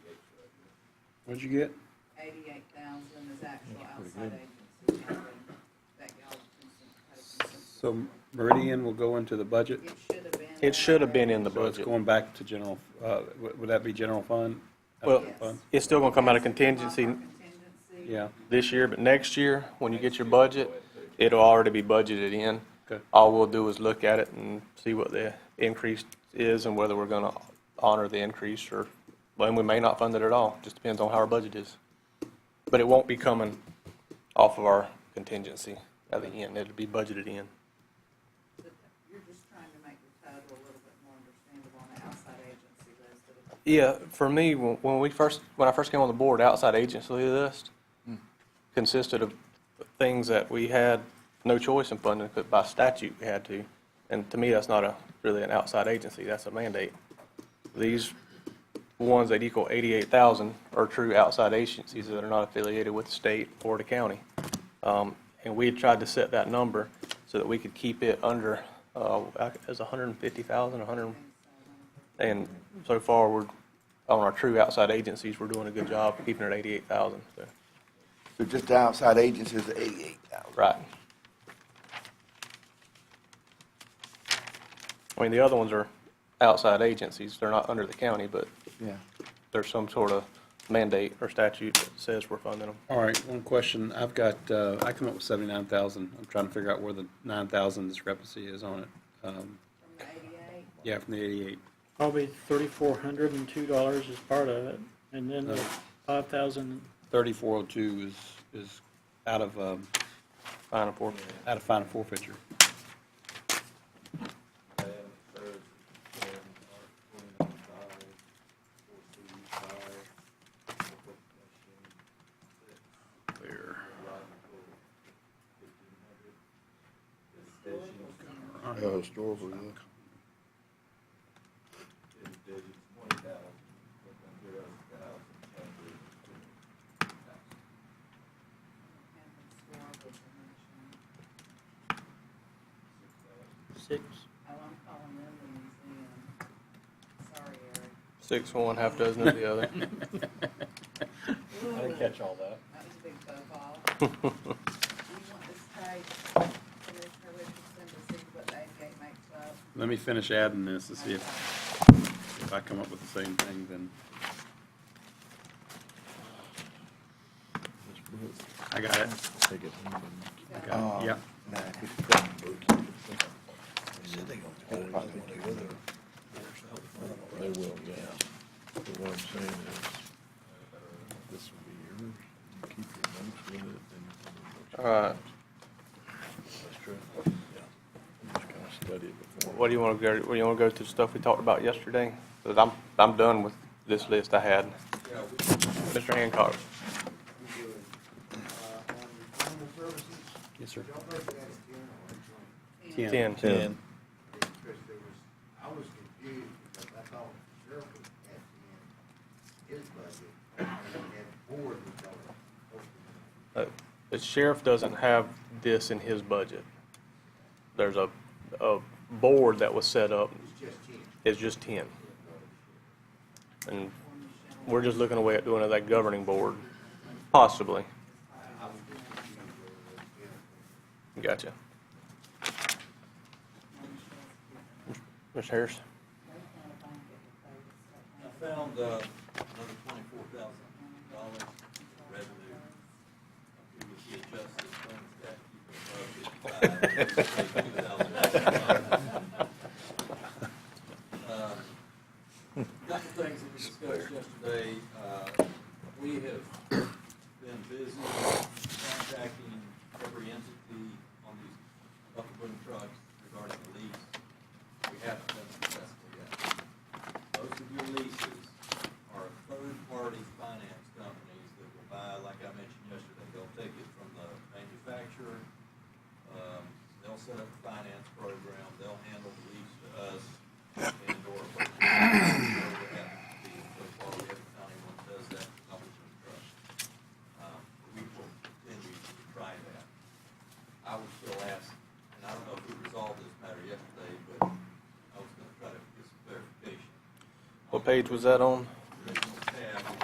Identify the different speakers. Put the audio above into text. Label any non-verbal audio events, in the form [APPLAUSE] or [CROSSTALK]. Speaker 1: What'd you get?
Speaker 2: eighty-eight thousand is actual
Speaker 1: That's pretty
Speaker 2: outside agency funding that y'all consent- had a consensus.
Speaker 1: So Meridian will go into the budget?
Speaker 2: It should have been.
Speaker 3: It should have been
Speaker 2: already.
Speaker 3: in the
Speaker 1: So it's
Speaker 3: budget.
Speaker 1: going back to general, uh, would would that be general fund?
Speaker 3: Well,
Speaker 1: General fund?
Speaker 3: It's still gonna come out of
Speaker 2: Off our
Speaker 3: contingency
Speaker 2: Contingency.
Speaker 1: Yeah,
Speaker 3: this year, but next year, when you get your budget, it'll already be budgeted in.
Speaker 1: Okay.
Speaker 3: All we'll do is look at it and see what the increase is and whether we're gonna honor the increase or, and we may not fund it at all, just depends on how our budget is. But it won't be coming off of our contingency at the end, it'll be budgeted in.
Speaker 2: But You're just trying to make the total a little bit more understandable on the outside agency list. of the-
Speaker 3: Yeah, for me, when when we first, when I first came on the board, outside agency list consisted of things that we had no choice in funding, but by statute we had to. And to me, that's not a, really an outside agency, that's a mandate. These ones that equal eighty-eight thousand are true outside agencies that are not affiliated with the state or the county. Um, And we had tried to set that number so that we could keep it under, uh, it was a hundred and fifty thousand, a hundred and and so far, we're, on our true outside agencies, we're doing a good job keeping it at eighty-eight thousand, so.
Speaker 4: So just the outside agencies, eighty-eight thousand.
Speaker 3: Right. I mean, the other ones are outside agencies, they're not under the county, but
Speaker 4: Yeah.
Speaker 3: there's some sort of mandate or statute that says we're funding them.
Speaker 1: all right, one question, I've got, uh, I come up with seventy-nine thousand, I'm trying to figure out where the nine thousand discrepancy is on it. Um,
Speaker 2: From the eighty-eight,
Speaker 1: Yeah, from the eighty-eight,
Speaker 5: Probably thirty-four hundred and two dollars is part of it, and then the five thousand,
Speaker 1: thirty-four oh two is, is out of, um,
Speaker 3: Fine and forth.
Speaker 1: out of fine and forfeiture. There.
Speaker 4: Historical,
Speaker 2: and the historical commission.
Speaker 5: six,
Speaker 2: Oh, I'm calling them the museum. Sorry, Eric.
Speaker 3: Six one, half dozen of
Speaker 2: [LAUGHS]
Speaker 3: the other.
Speaker 2: I didn't catch all that. That was a big faux
Speaker 1: [LAUGHS]
Speaker 2: pas. Do you want this page, Commissioner Richardson, to see what they gave makes up?
Speaker 1: Let me finish adding this to see if, if I come up with the same thing, then I got it.
Speaker 4: Oh.
Speaker 1: Yeah,
Speaker 6: They will, yeah. But what I'm saying is, uh, this will be yours, you keep your notes with it, and.
Speaker 3: All right,
Speaker 6: That's true. Yeah. You just kind of study it before.
Speaker 3: what do you wanna go, what do you wanna go to the stuff we talked about yesterday? Cause I'm, I'm done with this list I had. Mr. Hancock.
Speaker 1: yes, sir.
Speaker 2: Yeah.
Speaker 1: Ten.
Speaker 3: Ten.
Speaker 7: Because there was, I was confused because I thought sheriff was at the end, his budget, and then board was going to open it.
Speaker 3: Uh, The sheriff doesn't have this in his budget. There's a, a board that was set up,
Speaker 7: It's just him.
Speaker 3: it's just ten. And we're just looking away at doing that governing board, possibly.
Speaker 7: I was just confused over the bill.
Speaker 3: Gotcha. Mr. Harris?
Speaker 8: I found uh, another twenty-four thousand dollars revenue. It was the adjusted funds that
Speaker 6: [LAUGHS]
Speaker 3: [LAUGHS]
Speaker 8: you Couple things that we discussed yesterday, uh, we have been busy contacting every entity on these bucket boom trucks regarding the lease. We haven't been successful yet. Most of your leases are third-party finance companies that will buy, like I mentioned yesterday, they'll take it from the manufacturer, um, they'll set up a finance program, they'll handle the lease to us and or. what happens to be, so far, we haven't found anyone that does that, I was in trust. Um, We will continue to try that. I would still ask, and I don't know if we resolved this matter yesterday, but I was gonna try to get some clarification.
Speaker 3: What page was that on?